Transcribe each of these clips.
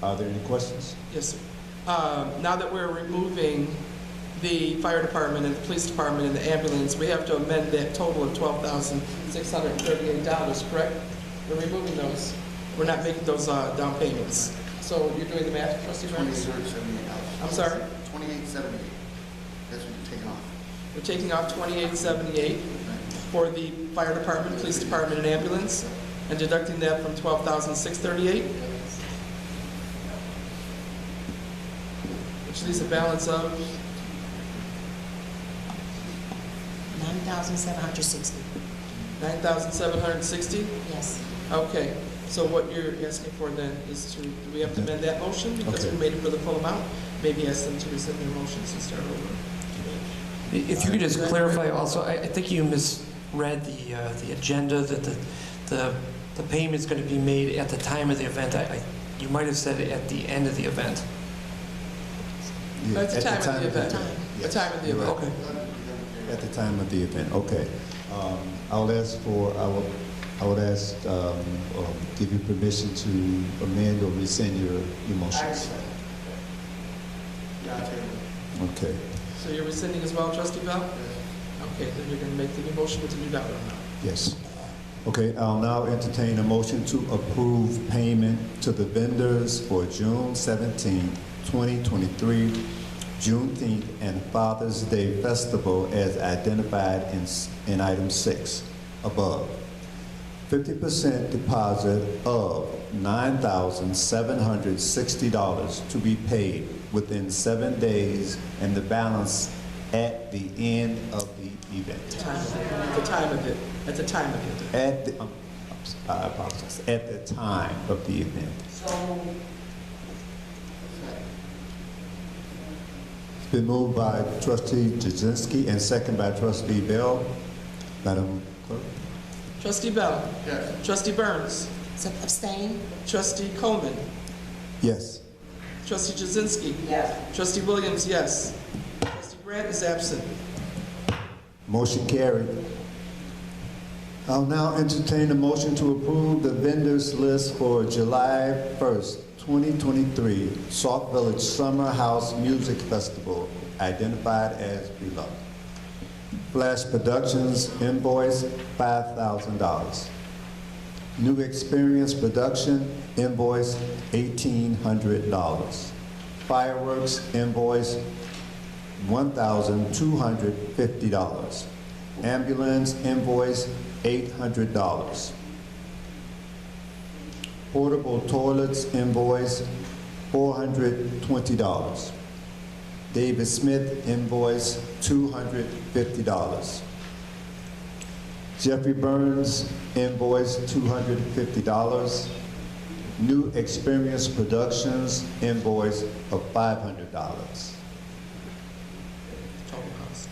Are there any questions? Yes, sir. Um, Now that we're removing the fire department and the police department and the ambulance, we have to amend that total of twelve thousand six hundred and thirty-eight dollars, correct? We're removing those. We're not making those uh, down payments. So you're doing the math, trustee Burns? Twenty-eight seventy-eight dollars. I'm sorry? Twenty-eight seventy-eight. That's what you're taking off. We're taking off twenty-eight seventy-eight for the fire department, police department, and ambulance, and deducting that from twelve thousand six thirty-eight. Which leaves a balance of Nine thousand seven hundred sixty, nine thousand seven hundred sixty. yes. Okay, so what you're asking for then is to, do we have to amend that motion? Because we Okay. made it for the full amount. Maybe ask them to rescind their motions and start over. If you could just clarify also, I, I think you misread the, uh, the agenda, that the, the, the payment's gonna be made at the time of the event. I, I, you might have said it at the end of the event. Yeah, At the time of the event. The Yes. time of the You're right. event. Okay. At the time of the event, okay. Um, I would ask for, I would, I would ask, um, or give you permission to amend or rescind your, your motions. Yeah, I tell you. Okay. So you're rescinding as well, trustee Bell? Okay, then you're gonna make the new motion with the new dollar amount. Yes. Okay, I'll now entertain a motion to approve payment to the vendors for June seventeenth, twenty twenty-three, Juneteenth, and Father's Day Festival as identified in, s- in item six above. Fifty percent deposit of nine thousand seven hundred sixty dollars to be paid within seven days and the balance at the end of the event. Time- The time of it, at the time of it. At the, um, I apologize, at the time of the event. It's been moved by trustee Jazinski and second by trustee Bell. Madam Clerk? Trustee Bell? Yes. Trustee Burns? So abstain? Trustee Coleman? Yes. Trustee Jazinski? Yes. Trustee Williams, yes. Trustee Grant is absent. Motion carried. I'll now entertain a motion to approve the vendors list for July 1st, 2023, Sauk Village Summer House Music Festival, identified as below. Flash Productions invoice $5,000. New Experience Production invoice $1,800. Fireworks invoice $1,250. Ambulance invoice, $800. Portable toilets invoice, $420. David Smith invoice, $250. Jeffrey Burns invoice, $250. New Experience Productions invoice of $500. Total cost.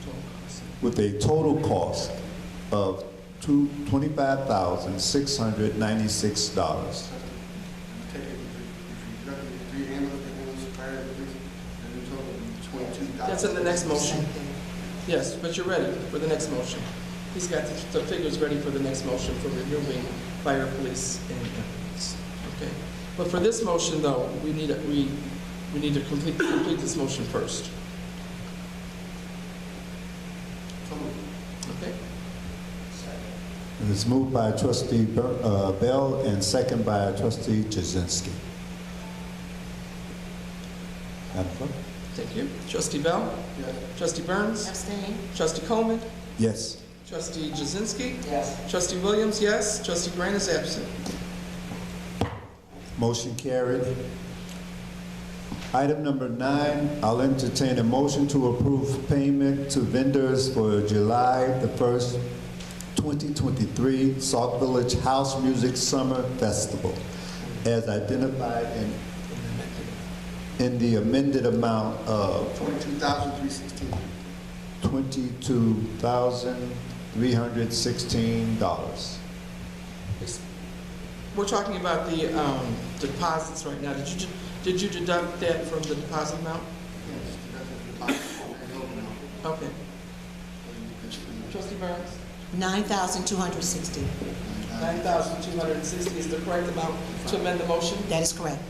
Total cost. with a total cost of two- $25,696. Take it, if you deduct the three ambulance, ambulance, fire, and police, and the total is twenty-two thousand. That's in the next motion. Yes, but you're ready for the next motion. He's got the the figures ready for the next motion for removing fire, police, and ambulance. Okay. But for this motion, though, we need, a- we, we need to complete, complete this motion first. Okay? It is moved by trustee Bur- uh, Bell and second by trustee Jazinski. Madam Clerk? Thank you. Trustee Bell? Yes. Trustee Burns? Abstain? Trustee Coleman? Yes. Trustee Jazinski? Yes. Trustee Williams, yes. Trustee Grant is absent. Motion carried. Item number nine, I'll entertain a motion to approve payment to vendors for July the 1st, 2023 Sauk Village House Music Summer Festival as identified in, in the amended amount of Twenty-two thousand, three sixteen. $22,316. We're talking about the um, deposits right now. Did you, did you deduct that from the deposit amount? Yes, deduct the deposit, and the total amount. Okay. And Trustee Burns? Nine thousand two hundred sixty, the- $9,260 is the correct amount to amend the motion? that is correct.